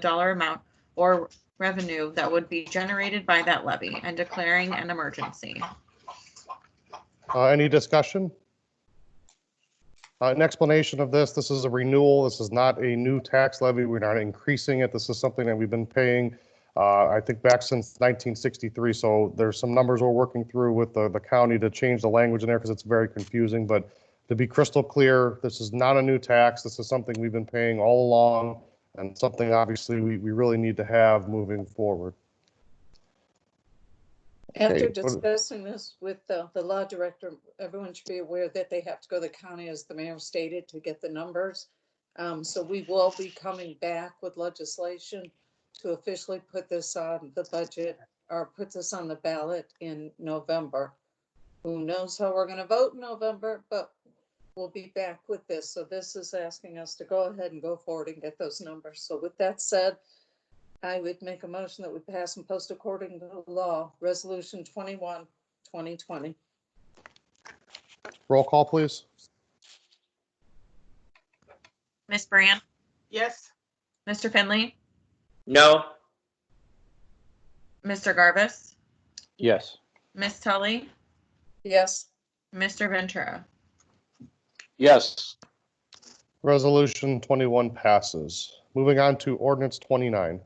dollar amount or revenue that would be generated by that levy and declaring an emergency. Uh, Any discussion? Uh, An explanation of this, this is a renewal, this is not a new tax levy, we're not increasing it, this is something that we've been paying, uh, I think back since 1963, so there's some numbers we're working through with the the county to change the language in there because it's very confusing, but to be crystal clear, this is not a new tax, this is something we've been paying all along, and something obviously we we really need to have moving forward. After Okay, what- discussing this with the, the law director, everyone should be aware that they have to go to the county, as the mayor stated, to get the numbers. Um, so we will be coming back with legislation to officially put this on the budget or put this on the ballot in November. Who knows how we're gonna vote in November, but we'll be back with this. So this is asking us to go ahead and go forward and get those numbers. So with that said, I would make a motion that we pass and post according to law, Resolution 21, 2020. Roll call, please. Ms. Brand, Yes. Mr. Finley, No. Mr. Garvis, Yes. Ms. Tully, Yes, Mr. Ventura. Yes. Resolution 21 passes. Moving on to ordinance 29.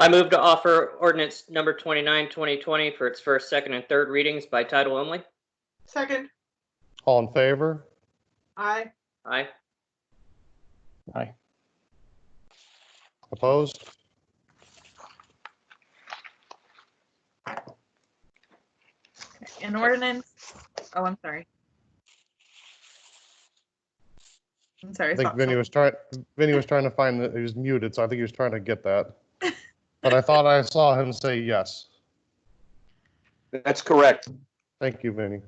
I move to offer ordinance number 29, 2020 for its first, second, and third readings by title only. Second, All in favor? aye. Aye. Opposed? An ordinance, oh, I'm sorry. I'm sorry. I think so- Vinny was trying, Vinny was trying to find, that he was muted, so I think he was trying to get that. But I thought I saw him say yes. That's correct. Thank you, Vinny.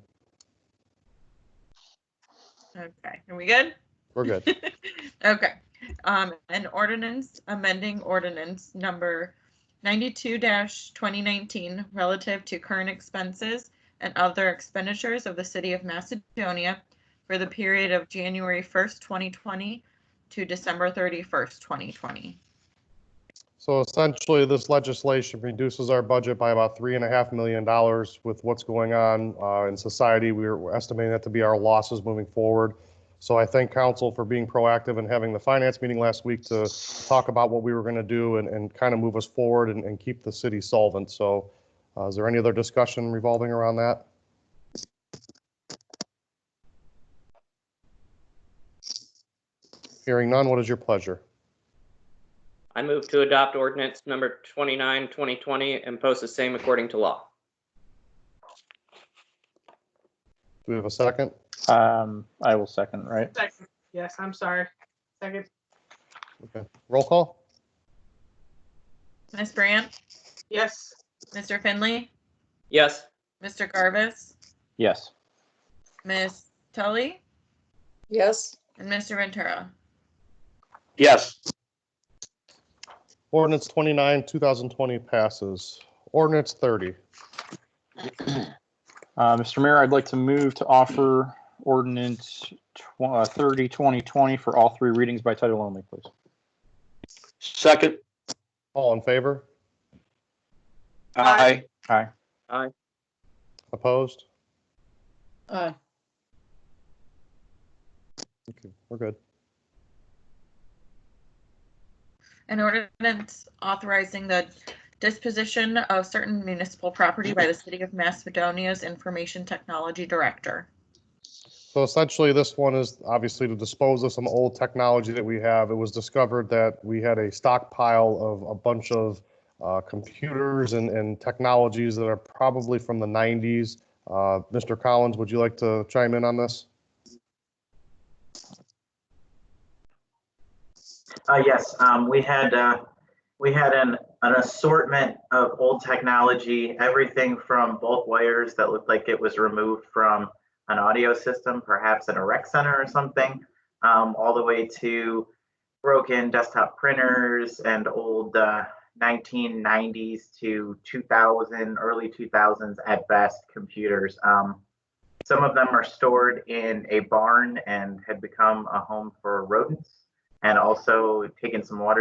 Okay, are we good? We're good. Okay, um, an ordinance amending ordinance number ninety-two twenty nineteen relative to current expenses and other expenditures of the city of Macedonia for the period of January first, twenty twenty to December thirty-first, twenty twenty. So essentially, this legislation reduces our budget by about three and a half million dollars with what's going on uh, in society. We We're estimating that to be our losses moving forward. So I thank council for being proactive and having the finance meeting last week to talk about what we were going to do and, and kind of move us forward and, and keep the city solvent. So uh, is there any other discussion revolving around that? Hearing none, what is your pleasure? I move to adopt ordinance number 29, 2020 and post the same according to law. Do we have a second? Um, I will second, right? Second, yes, I'm sorry. Second, Roll call? Ms. Brandt, yes. Mr. Finley, Yes. Mr. Garvis, Yes. Ms. Tully, yes, and Mr. Ventura. Yes. Ordinance 29, 2020 passes. Ordinance 30. Uh, Mr. Mayor, I'd like to move to offer ordinance tw- uh, 30, 2020 for all three readings by title only, please. Second. All in favor? Aye. Aye. Aye. Opposed? aye, Okay, We're good. An ordinance authorizing the disposition of certain municipal property by the City of Macedonia's Information Technology Director. So essentially, this one is obviously to dispose of some old technology that we have. It was discovered that we had a stockpile of a bunch of uh, computers and, and technologies that are probably from the 90s. Uh, Mr. Collins, would you like to chime in on this? Uh, yes, um, we had, uh, we had an, an assortment of old technology, everything from bulk wires that looked like it was removed from an audio system, perhaps in a rec center or something, um, all the way to broken desktop printers and old, uh, 1990s to 2000, early 2000s at best computers. Um, some of them are stored in a barn and had become a home for rodents. and also taking some water